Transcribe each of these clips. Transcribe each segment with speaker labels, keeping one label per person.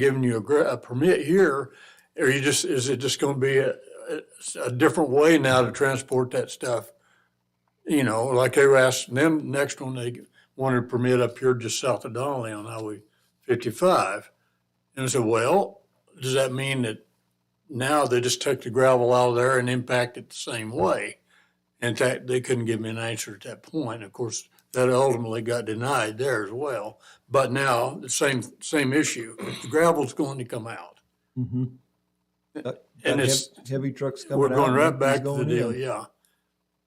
Speaker 1: giving you a, gr- a permit here, are you just, is it just gonna be a, a- a different way now to transport that stuff? You know, like they were asking them, next one, they wanted a permit up here just south of Donnelly on Highway fifty-five. And I said, well, does that mean that now they just took the gravel out of there and impact it the same way? In fact, they couldn't give me an answer at that point. Of course, that ultimately got denied there as well. But now, the same, same issue, the gravel's going to come out.
Speaker 2: Mhm. Got- got
Speaker 1: And it's,
Speaker 2: heav- Heavy trucks coming
Speaker 1: we're
Speaker 2: out.
Speaker 1: going
Speaker 2: and
Speaker 1: right
Speaker 2: empties
Speaker 1: back to the
Speaker 2: going
Speaker 1: deal,
Speaker 2: in.
Speaker 1: yeah.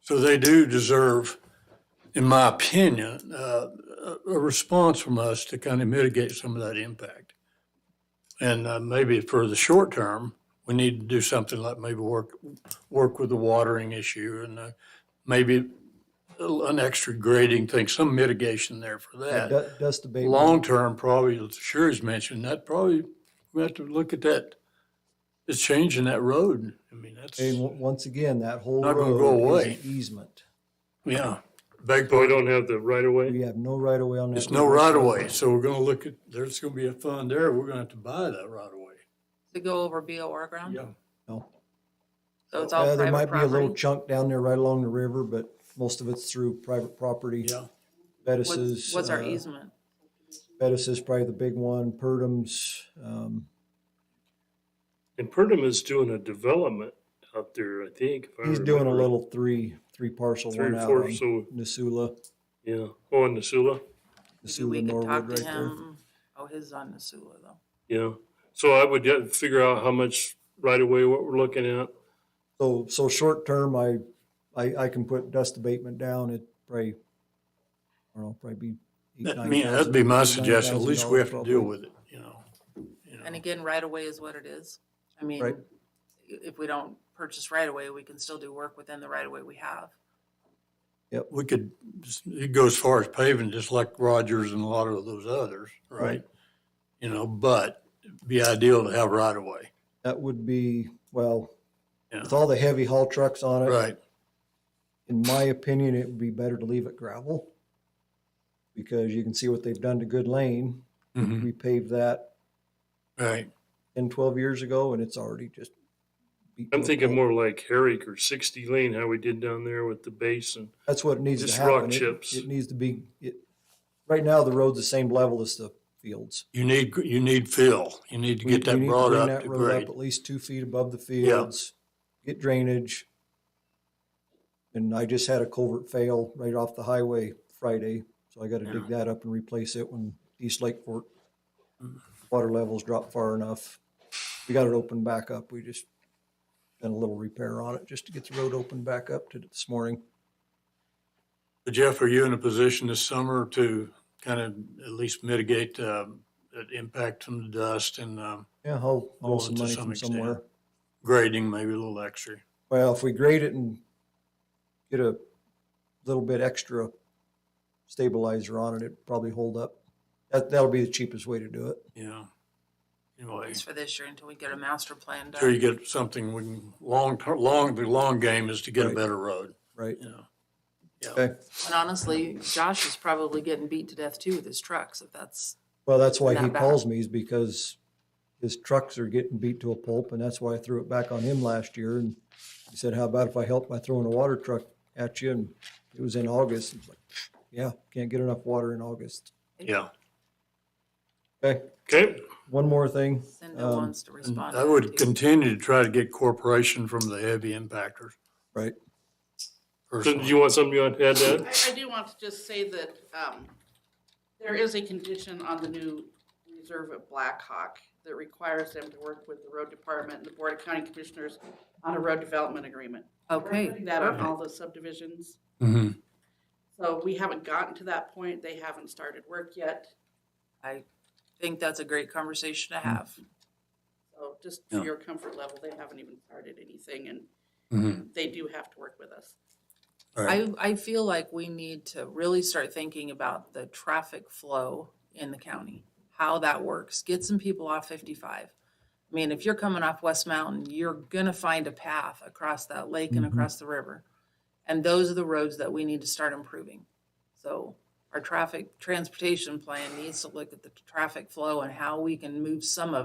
Speaker 1: So they do deserve, in my opinion, uh, a a response from us to kind of mitigate some of that impact. And uh, maybe for the short term, we need to do something like maybe work, work with the watering issue and uh, maybe an extra grading thing, some mitigation there for that.
Speaker 2: Du- Dust abatement.
Speaker 1: Long-term, probably, as Sherry's mentioned, that probably, we have to look at that, it's changing that road. I mean, that's,
Speaker 2: And w- once again, that whole
Speaker 1: Not gonna go
Speaker 2: road is
Speaker 1: away.
Speaker 2: an easement.
Speaker 1: yeah. Beg
Speaker 3: So we
Speaker 1: pardon,
Speaker 3: don't have the right of way?
Speaker 2: We have no right of way on that.
Speaker 1: it's no
Speaker 2: road whatsoever.
Speaker 1: right-of-way, so we're gonna look at, there's gonna be a fund there, we're gonna have to buy that right-of-way.
Speaker 4: to go over BOR ground?
Speaker 1: Yeah,
Speaker 2: No.
Speaker 4: So it's
Speaker 2: Uh,
Speaker 4: all
Speaker 2: There
Speaker 4: private
Speaker 2: might be a little
Speaker 4: property?
Speaker 2: chunk down there right along the river, but most of it's through private property.
Speaker 1: yeah.
Speaker 2: Bettis's.
Speaker 4: What's, what's our
Speaker 2: uh,
Speaker 4: easement?
Speaker 2: Bettis is probably the big one, Purdum's, um,
Speaker 3: And Purdom is doing a development out there, I think. if I
Speaker 2: he's doing a
Speaker 3: remember.
Speaker 2: little three, three parcel
Speaker 3: Three
Speaker 2: one
Speaker 3: or
Speaker 2: out
Speaker 3: four,
Speaker 2: on
Speaker 3: so,
Speaker 2: Nisula,
Speaker 3: yeah. Oh, and Nisula,
Speaker 4: Maybe
Speaker 2: Nisula
Speaker 4: we could
Speaker 2: Norwood
Speaker 4: talk
Speaker 2: right
Speaker 4: to
Speaker 2: there.
Speaker 4: him. Oh, his is on Nisula though.
Speaker 3: yeah. So I would get, figure out how much right of way, what we're looking at.
Speaker 2: So, so short term, I, I, I can put dust abatement down, it probably, I don't know, probably be. eight,
Speaker 1: That- I
Speaker 2: nine
Speaker 1: mean, that'd
Speaker 2: thousand-
Speaker 1: be my
Speaker 2: nine
Speaker 1: suggestion, at
Speaker 2: thousand
Speaker 1: least we
Speaker 2: dollars
Speaker 1: have to deal
Speaker 2: probably.
Speaker 1: with it, you know? you know.
Speaker 4: And again, right away is what it is. I mean, i-
Speaker 2: Right.
Speaker 4: if we don't purchase right away, we can still do work within the right away we have.
Speaker 1: We could, it goes as far as paving, just like Rogers and a lot of those others, right?
Speaker 2: Right.
Speaker 1: You know, but it'd be ideal to have right-of-way,
Speaker 2: That would be, well,
Speaker 1: Yeah.
Speaker 2: with all the heavy haul trucks on it,
Speaker 1: right?
Speaker 2: in my opinion, it would be better to leave it gravel. Because you can see what they've done to Good Lane,
Speaker 1: Mhm.
Speaker 2: we paved that
Speaker 1: Right,
Speaker 2: 10, 12 years ago, and it's already just. beat
Speaker 3: I'm
Speaker 2: to a
Speaker 3: thinking
Speaker 2: pulp.
Speaker 3: more like Herrick or sixty lane, how we did down there with the basin.
Speaker 2: That's what needs to
Speaker 3: just
Speaker 2: happen.
Speaker 3: rock
Speaker 2: It-
Speaker 3: chips.
Speaker 2: It needs to be, it, right now, the road's the same level as the fields.
Speaker 1: you need, you need fill, you need to
Speaker 2: We-
Speaker 1: get
Speaker 2: we need
Speaker 1: that
Speaker 2: to
Speaker 1: brought
Speaker 2: bring
Speaker 1: up
Speaker 2: that
Speaker 1: to
Speaker 2: road
Speaker 1: grade.
Speaker 2: At least two feet above the fields, get drainage. And I just had a culvert fail right off the highway Friday, so I gotta dig that up and replace it when East Lake Fork
Speaker 1: Mm.
Speaker 2: water levels drop far enough. We got it opened back up. We just done a little repair on it just to get the road opened back up to this morning.
Speaker 1: Jeff, are you in a position this summer to kind of at least mitigate um, that impact from the dust and um,
Speaker 2: Yeah, I'll,
Speaker 1: Well,
Speaker 2: I'll some
Speaker 1: to
Speaker 2: money
Speaker 1: some
Speaker 2: from
Speaker 1: extent.
Speaker 2: somewhere.
Speaker 1: grading, maybe a little extra?
Speaker 2: Well, if we grade it and get a little bit extra stabilizer on it, it'd probably hold up. That, that'll be the cheapest way to do it.
Speaker 1: Yeah. Anyway,
Speaker 4: It's for this year until we get a master plan
Speaker 1: sure you
Speaker 4: done.
Speaker 1: get something, we can, long, ter- long, the long game is to get a
Speaker 2: Right.
Speaker 1: better road,
Speaker 2: Right.
Speaker 1: you know?
Speaker 2: Okay.
Speaker 4: And honestly, Josh is probably getting beat to death too with his trucks, if that's,
Speaker 2: Well, that's why he
Speaker 4: Not bad.
Speaker 2: calls me is because his trucks are getting beat to a pulp and that's why I threw it back on him last year. And he said, how about if I help by throwing a water truck at you? And it was in August. It's like, yeah, can't get enough water in August.
Speaker 1: Yeah,
Speaker 2: Okay.
Speaker 3: Okay,
Speaker 2: One more thing.
Speaker 4: Cindy wants to
Speaker 2: Um,
Speaker 4: respond. to
Speaker 1: I
Speaker 4: that,
Speaker 1: would
Speaker 4: too.
Speaker 1: continue to try to get corporation from the heavy impactors.
Speaker 2: Right.
Speaker 3: so do
Speaker 1: personally.
Speaker 3: you want something you want to add to that?
Speaker 5: I, I do want to just say that, um, there is a condition on the new reserve at Blackhawk that requires them to work with the road department and the Board of County Commissioners on a road development agreement. We're
Speaker 4: Okay,
Speaker 5: putting That on all the subdivisions.
Speaker 1: Mhm.
Speaker 5: So we haven't gotten to that point. They haven't started work yet.
Speaker 4: I think that's a great conversation to have.
Speaker 5: So just
Speaker 1: Yeah.
Speaker 5: for your comfort level, they haven't even started anything and
Speaker 1: Mhm.
Speaker 5: they do have to work with us.
Speaker 4: I, I feel like we need to really start thinking about the traffic flow in the county, how that works, get some people off fifty-five. I mean, if you're coming off West Mountain, you're gonna find a path across that lake and
Speaker 2: Mhm.
Speaker 4: across the river. And those are the roads that we need to start improving. So our traffic transportation plan needs to look at the traffic flow and how we can move some of